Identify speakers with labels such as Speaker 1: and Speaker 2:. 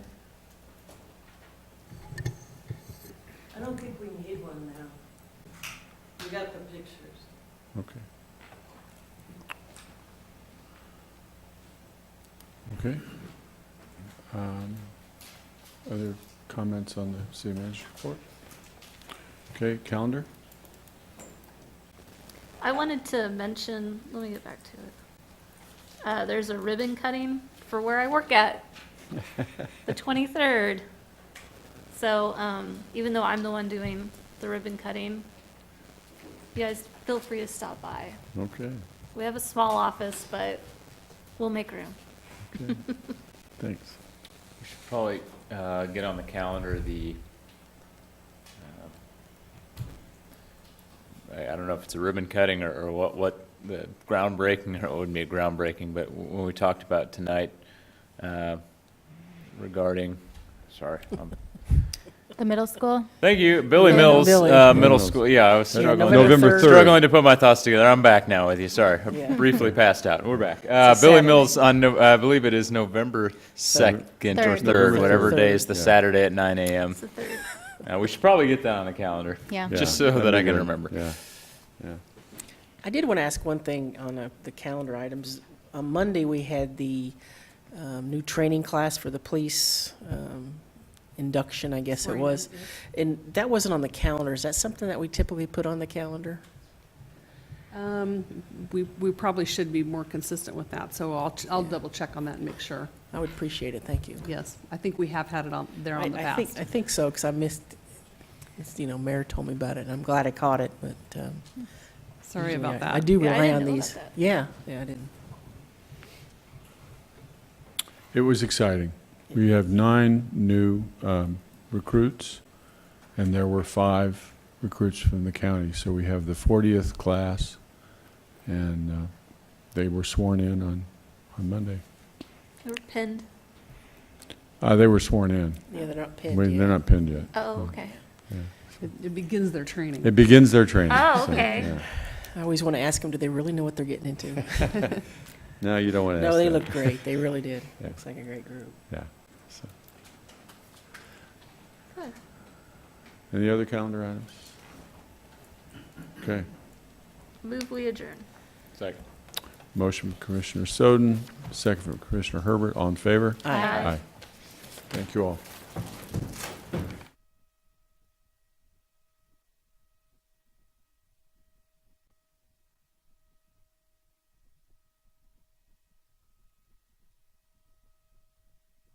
Speaker 1: we need one now. We got the pictures.
Speaker 2: Okay. Okay. Um, Other comments on the city manager's report? Okay, calendar?
Speaker 3: I wanted to mention, let me get back to it. Uh, there's a ribbon cutting for where I work at, the 23rd. So, um, even though I'm the one doing the ribbon cutting, you guys feel free to stop by.
Speaker 2: Okay,
Speaker 3: We have a small office, but we'll make room.
Speaker 2: okay. Thanks.
Speaker 4: We should probably uh, get on the calendar the, um, uh, I I don't know if it's a ribbon cutting or- or what, what, the groundbreaking, or it wouldn't be a groundbreaking, but w- when we talked about tonight uh, regarding, sorry, um,
Speaker 3: The middle school?
Speaker 4: thank you, Billy
Speaker 5: Yeah,
Speaker 4: Mills,
Speaker 5: Billy.
Speaker 4: uh, middle
Speaker 2: Mills.
Speaker 4: school, yeah, I was struggling.
Speaker 5: November
Speaker 2: November
Speaker 5: third.
Speaker 2: third.
Speaker 4: Struggling to put my thoughts together. I'm back now with you. Sorry, I
Speaker 5: Yeah.
Speaker 4: briefly passed out. We're back. Uh, Billy
Speaker 5: Saturday.
Speaker 4: Mills on, no, I believe it is November second or
Speaker 3: Third.
Speaker 4: third,
Speaker 2: November
Speaker 4: whatever
Speaker 5: third.
Speaker 4: day is the
Speaker 2: Yeah.
Speaker 4: Saturday at nine a.m.
Speaker 3: It's the third,
Speaker 4: Uh, we should probably get that on the calendar.
Speaker 3: yeah.
Speaker 2: Yeah,
Speaker 4: Just so
Speaker 2: that'd
Speaker 4: that
Speaker 2: be
Speaker 4: I can
Speaker 2: good.
Speaker 4: remember.
Speaker 2: Yeah, yeah.
Speaker 5: I did want to ask one thing on uh, the calendar items. On Monday, we had the um, new training class for the police um, induction, I guess it was. And that wasn't on the calendar. Is that something that we typically put on the calendar?
Speaker 6: Um, We, we probably should be more consistent with that, so I'll, ch- I'll double check on that and make sure.
Speaker 5: I would appreciate it, thank you.
Speaker 6: Yes, I think we have had it on, there
Speaker 5: I-
Speaker 6: on the
Speaker 5: I think-
Speaker 6: past.
Speaker 5: I think so, because I missed, it's, you know, Mayor told me about it, and I'm glad I caught it, but. um,
Speaker 6: Sorry
Speaker 5: usually I-
Speaker 6: about that.
Speaker 5: I do
Speaker 3: Yeah, I
Speaker 5: rely
Speaker 3: didn't
Speaker 5: on
Speaker 3: know about
Speaker 5: these.
Speaker 3: that.
Speaker 5: Yeah, yeah, I didn't.
Speaker 2: It was exciting. We uh, have nine new um, recruits, and there were five recruits from the county. So we have the 40th class, and uh, they were sworn in on, on Monday.
Speaker 3: They were pinned.
Speaker 2: Uh, They were sworn in.
Speaker 5: Yeah, they're not pinned
Speaker 2: Wait, They're not pinned yet.
Speaker 3: Oh, okay.
Speaker 6: It it begins their training.
Speaker 2: It begins their training.
Speaker 3: Oh,
Speaker 2: so,
Speaker 3: okay.
Speaker 2: yeah.
Speaker 5: I always want to ask them, do they really know what they're getting into?
Speaker 2: No, you don't want to ask
Speaker 5: No, they
Speaker 2: that.
Speaker 5: look great. They really did.
Speaker 2: Yeah.
Speaker 5: Looks like a great group.
Speaker 2: Yeah. so.
Speaker 3: Good.
Speaker 2: Any other calendar items? Okay.
Speaker 3: Move, we adjourn.
Speaker 4: Second.
Speaker 2: Motion from Commissioner Soden, second from Commissioner Herbert. All in favor?
Speaker 3: Aye.
Speaker 2: Thank you all.